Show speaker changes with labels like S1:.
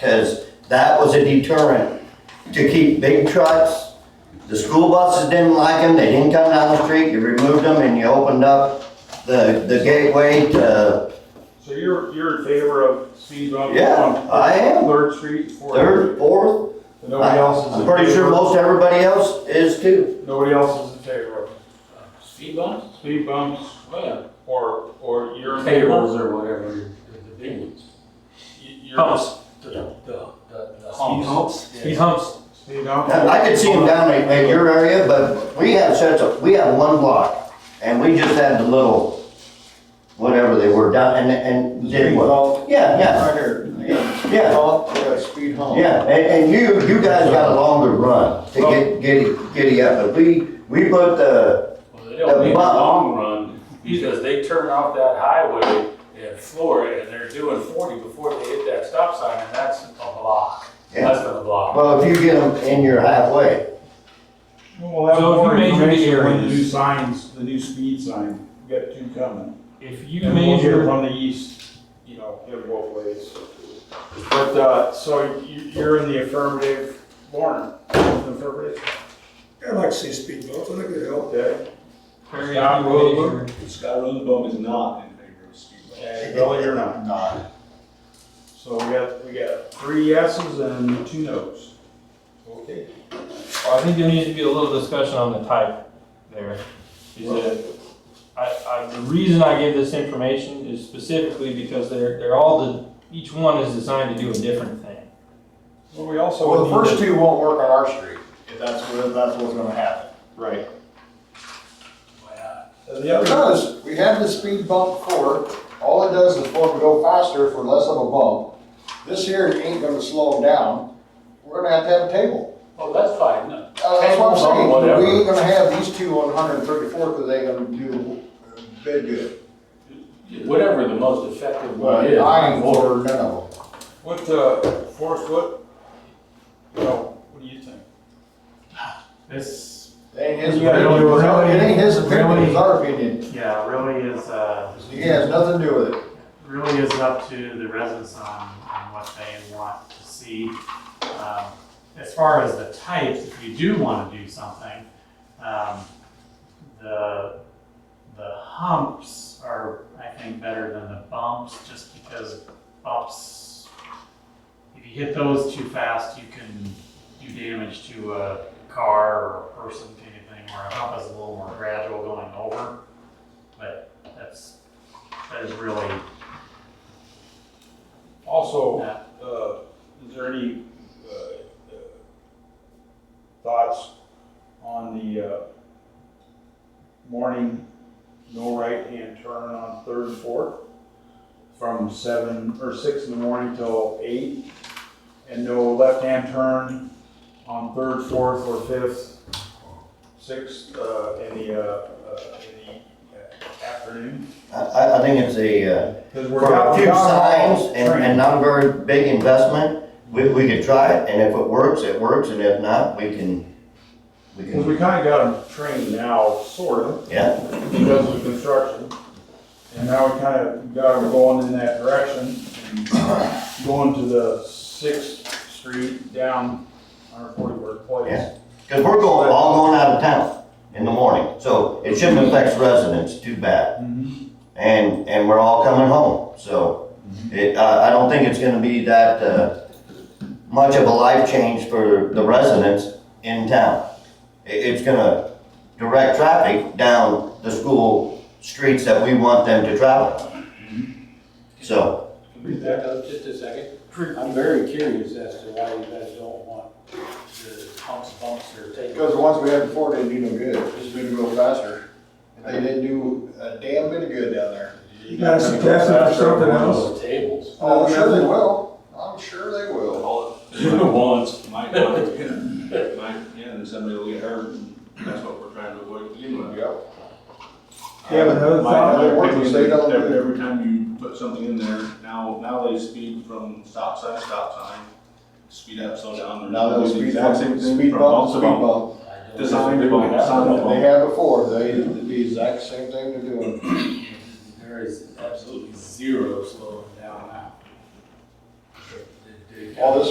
S1: Because that was a deterrent to keep big trucks. The school buses didn't like them, they didn't come down the street, you removed them and you opened up the, the gateway to,
S2: So you're, you're in favor of speed bumps?
S1: yeah, I am.
S2: on Third Street, Fourth?
S1: Third, fourth,
S2: And Nobody else is in
S1: I'm
S2: favor?
S1: pretty sure most everybody else is too.
S2: Nobody else is in favor
S3: Speed bumps?
S2: of speed bumps,
S3: Oh, yeah.
S2: or, or you're in favor?
S4: Fables or whatever, the the big ones.
S2: You- You're
S3: The, the, the. the
S4: Speed humps,
S3: Yeah.
S4: speed humps.
S2: Speed bumps?
S1: Now, I could see them down in, in your area, but we have such a, we have one block and we just had the little, whatever they were down and, and did what? Yeah, yeah,
S5: Right here, you got a
S1: yeah.
S5: hump, you got a speed hump.
S1: Yeah, and, and you, you guys got a longer run to get, get, giddy up, but we, we put the,
S3: Well, they don't
S1: The
S3: make a
S1: bump.
S3: long run, because they turn off that highway at Florida, and they're doing forty before they hit that stop sign, and that's a block,
S1: yeah.
S3: less than a block.
S1: well, if you get them in your halfway,
S2: We'll have
S4: So if you
S2: more
S4: measure the
S2: information when the
S4: areas-
S2: new signs, the new speed sign, we got two coming.
S4: If you
S2: And we'll hear
S4: measure,
S2: From the east, you know, in both ways. But, uh, so you, you're in the affirmative, Lauren, affirmative,
S6: I'd like to see speed bumps, I think they help.
S2: okay?
S4: Perry,
S2: Scott
S4: if you
S2: Rosenbaum.
S4: measure,
S5: Scott Rosenbaum is not in favor of speed bumps.
S2: And Billy, you're not.
S5: Not.
S2: So we got, we got three yeses and two nos. Okay.
S4: well, I think there needs to be a little discussion on the type there. Is that, I, I, the reason I give this information is specifically because they're, they're all the, each one is designed to do a different thing.
S2: Well, we also.
S5: Well, the
S2: would need
S5: first
S2: to-
S5: two won't work on our street, if that's what, if that's what's gonna happen.
S2: Right.
S3: Why not?
S2: And the other,
S5: Because we have the speed bump for, all it does is for them to go faster for less of a bump. This here ain't gonna slow them down, we're gonna have to have a table.
S3: Oh, that's fine, no.
S5: Uh, that's what I'm
S3: Tables or
S5: saying,
S3: whatever.
S5: we ain't gonna have these two on 134 because they gonna do uh, bid good.
S3: Whatever the most effective one
S5: But
S3: is.
S5: I ain't for none of them.
S2: what, uh, Forrest, what, you know, what do you think?
S7: This,
S5: It ain't his
S7: You gotta
S5: opinion,
S7: do it
S5: it
S7: really-
S5: ain't his opinion,
S7: really-
S5: it's our opinion.
S7: yeah, really is, uh,
S5: He has nothing to do with it.
S7: really is up to the residents on, on what they want to see. Um, As far as the types, if you do want to do something, um, the, the humps are, I think, better than the bumps, just because bumps, if you hit those too fast, you can do damage to a car or a person, kind of thing, where a hump is a little more gradual going over. But that's, that is really
S2: Also,
S7: Yeah.
S2: uh, is there any, uh, uh, thoughts on the, uh, morning, no right-hand turn on Third and Fourth? From seven or six in the morning till eight? And no left-hand turn on Third, Fourth, or Fifth, Sixth, uh, in the, uh, uh, in the uh, afternoon?
S1: I, I, I think it's a, uh,
S2: Because
S1: for a few signs and, and not a very big investment, we, we could try it, and if it works, it works, and if not, we can, we
S2: Because we
S1: can,
S2: kind of got them trained now, sort of,
S1: yeah.
S2: because of the construction. And now we kind of got them going in that direction, and going to the Sixth Street down on Forty-Word
S1: Yeah.
S2: Place.
S1: Cause we're going, all going out of town in the morning, so it shouldn't affect residents too bad.
S2: Mhm.
S1: and and we're all coming home. So it, uh, I I don't think it's going to be that uh, much of a life change for the residents in town. It, it's going to direct traffic down the school streets that we want them to travel. So
S3: Can we back up just a second? I'm very curious as to why you guys don't want the humps, bumps, or take.
S5: Because the ones we had before didn't do no good, just made them go faster. They didn't do a damn bit of good down there.
S6: You got a suggestion for something else?
S3: The tables.
S5: Oh, I'm sure they will, I'm sure they will.
S8: Once, might, might, yeah, and somebody will get hurt, and that's what we're trying to avoid, you know.
S5: Yep.
S6: You have another
S8: My-
S6: thought?
S8: my
S5: They work,
S8: opinion
S5: they
S8: is
S5: don't do
S8: every-
S5: it.
S8: Every time you put something in there, now, now they speed from stop sign to stop sign, speed up, slow down. They're
S5: Now those
S8: doing the
S5: speed
S8: exact
S5: bumps,
S8: same thing
S5: speed
S8: from
S5: bumps,
S8: to
S5: speed
S8: bump.
S5: bumps
S8: Design to bump, sign to
S5: that they
S8: bump.
S5: had before, they, did the exact same thing they're doing.
S3: There is absolutely zero slowing down now. The- the-
S5: all this